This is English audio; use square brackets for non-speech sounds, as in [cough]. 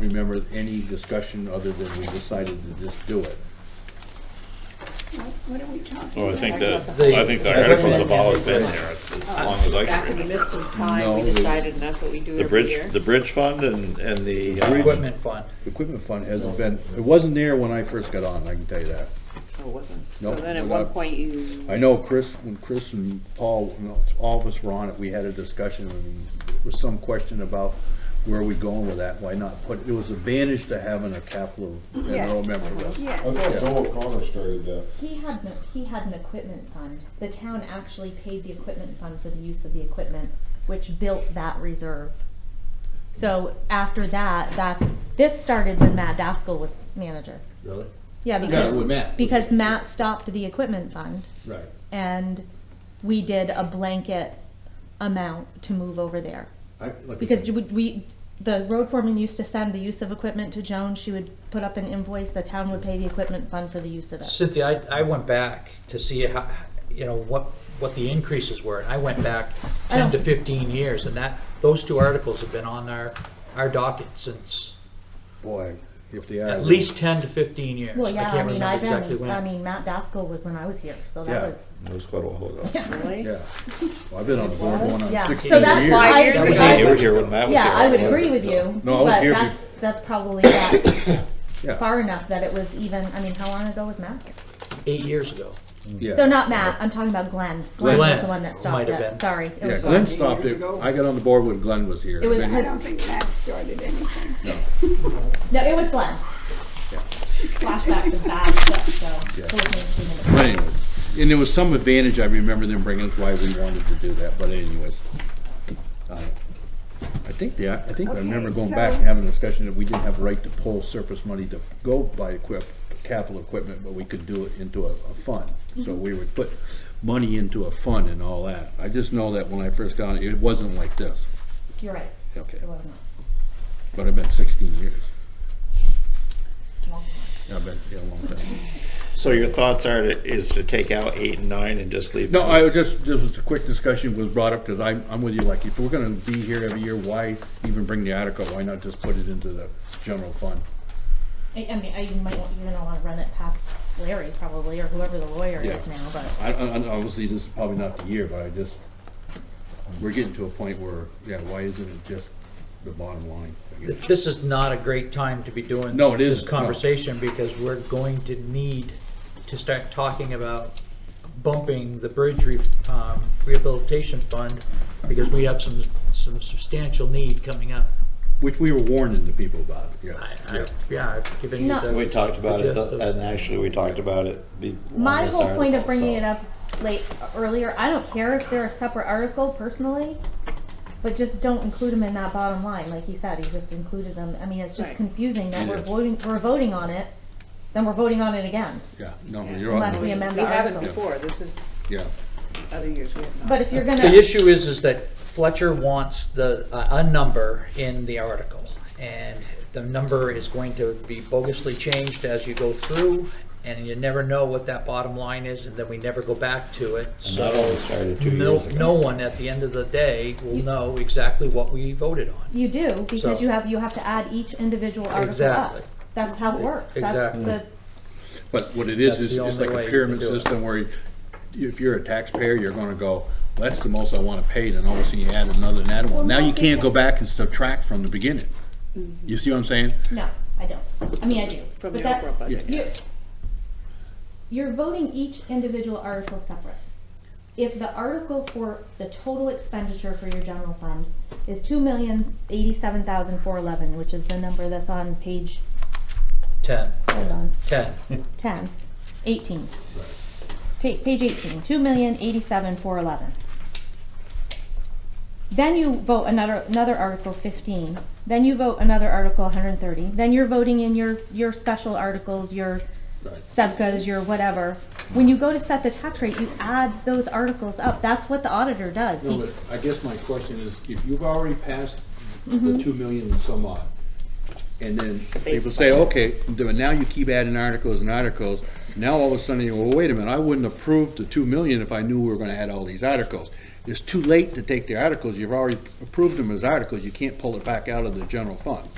remember any discussion other than we decided to just do it. What are we talking about? Well, I think that, The- I think the articles have always been there as long as I Back can in the remember. midst of time, No, we the- decided, and that's what we do The every bridge, year. the bridge fund and, and the. um, Equipment fund. The Equipment fund hasn't been, it wasn't there when I first got on, I can tell you that. Oh, it wasn't. No, So then at we're one not- point, you, I know Chris, when Chris and Paul, you know, all of us were on it, we had a discussion, and there was some question about where are we going with that, why not? But it was advantage to having a capital, and I don't Yes. remember that. Yes. I thought Bill O'Connor started uh, that. He had, no- he had an equipment fund. The town actually paid the equipment fund for the use of the equipment, which built that reserve. So after that, that's, this started when Matt Daskell was manager. Really? Yeah, with because, Matt. because Matt stopped the equipment fund Right. and we did a blanket amount to move over there. I- like I Because said, you would- we, the road foreman used to send the use of equipment to Joan, she would put up an invoice, the town would pay the equipment fund for the use of it. Cynthia, I, I went back to see how, you know, what, what the increases were, and I went back I ten to don't- fifteen years, and that, those two articles have been on our, our docket since Boy, if they are. at least ten to fifteen years. Well, yeah, I can't mean, remember I've exactly been, when. I mean, Matt Daskell was when I was here, so Yeah. that was, That was quite a while ago. really? Yeah, well, I've been on the board going on yeah. sixteen years. So that's why, Five I- years I- ago. Yeah, You were here when Matt was here. yeah, I would wasn't agree it? with you, No, I was but here bef- that's, that's probably not [coughs] Yeah. far enough that it was even, I mean, how long ago was Matt? here? Eight years ago. Yeah. So not Matt, I'm talking about Glenn. Glenn was the Glenn, one that who stopped might have been. it, sorry. it Yeah, was Glenn Glenn. stopped it, I got on the board when Glenn was here. It was Then- I his, don't think Matt started anything. [laughs] no, it was Glenn. Flashbacks of bad stuff, so. Yeah. those things came into play. But anyways, and there was some advantage I remember them bringing, that's why we wanted to do that, but anyways. Uh, I think they, I think I remember Okay, going back and so- having a discussion that we didn't have a right to pull surplus money to go buy equip, capital equipment, but we could do it into a, a fund. So we would put money into a fund and all that. I just know that when I first got it, it wasn't like this. You're right, Okay, it wasn't. but I've been sixteen years. Yeah, I've been, yeah, a long time. So your thoughts are, to- is to take out eight and nine and just leave? No, those? I would just, just was a quick discussion was brought up, because I'm, I'm with you, like, if we're gonna be here every year, why even bring the article? Why not just put it into the general fund? I, I mean, I you might, want- you're gonna wanna run it past Larry probably, or whoever the lawyer is Yeah. now, but. I, I, I- obviously, this is probably not the year, but I just, we're getting to a point where, yeah, why isn't it just the bottom line? I guess. This is not a great time to be doing. No, it This isn't, no. conversation, because we're going to need to start talking about bumping the bridge re- um, rehabilitation fund, because we have some, some substantial need coming up. Which we were warning the people about, I- yeah, I- yeah. Yeah, I've given you No. the. We talked about the it, gist th- of- and actually, we talked about it. be- on My this whole point of article, bringing so- it up late, earlier, I don't care if they're a separate article personally, but just don't include them in that bottom line, like he said, he just included them, I mean, it's just Right. confusing that It we're is. voting, we're voting on it, then we're voting on it again, Yeah, no, you're unless we on, amend We the haven't article. before, this is yeah, other years we have not. But if you're gonna. The issue is, is that Fletcher wants the, a a number in the article, and the number is going to be bogusly changed as you go through, and you never know what that bottom line is, and then we never go back to it, And that only so started two no, years ago. no one at the end of the day will know exactly what we voted on. You do, because So- you have, you have to add each individual article up. Exactly. That's how it works, that's Exactly. the, but what it is, That's is the it's only like way a to pyramid do it. system where you- if you're a taxpayer, you're gonna go, "Well, that's the most I wanna pay, then all of a sudden you add another and add one. Now you can't go back and subtract from the beginning. You see what I'm saying? no, I don't, I mean, I do, From but the that, overall budget. You're, you're voting each individual article separate. If the article for the total expenditure for your general fund is two million eighty-seven thousand four eleven, which is the number that's on page, Ten. hold on, Ten. ten, eighteen. Take, page eighteen, two million eighty-seven four eleven. Then you vote another, another article fifteen, then you vote another article hundred and thirty, then you're voting in your, your special articles, your Right. Sevkas, your whatever. When you go to set the tax rate, you add those articles up. That's what the auditor does. No, He- but I guess my question is, if you've already passed the two million and some odd, and then people say, okay, but now you keep adding articles and articles, now all of a sudden, you go, well, wait a minute, I wouldn't approve the two million if I knew we were gonna add all these articles. It's too late to take the articles, you've already approved them as articles, you can't pull it back out of the general fund.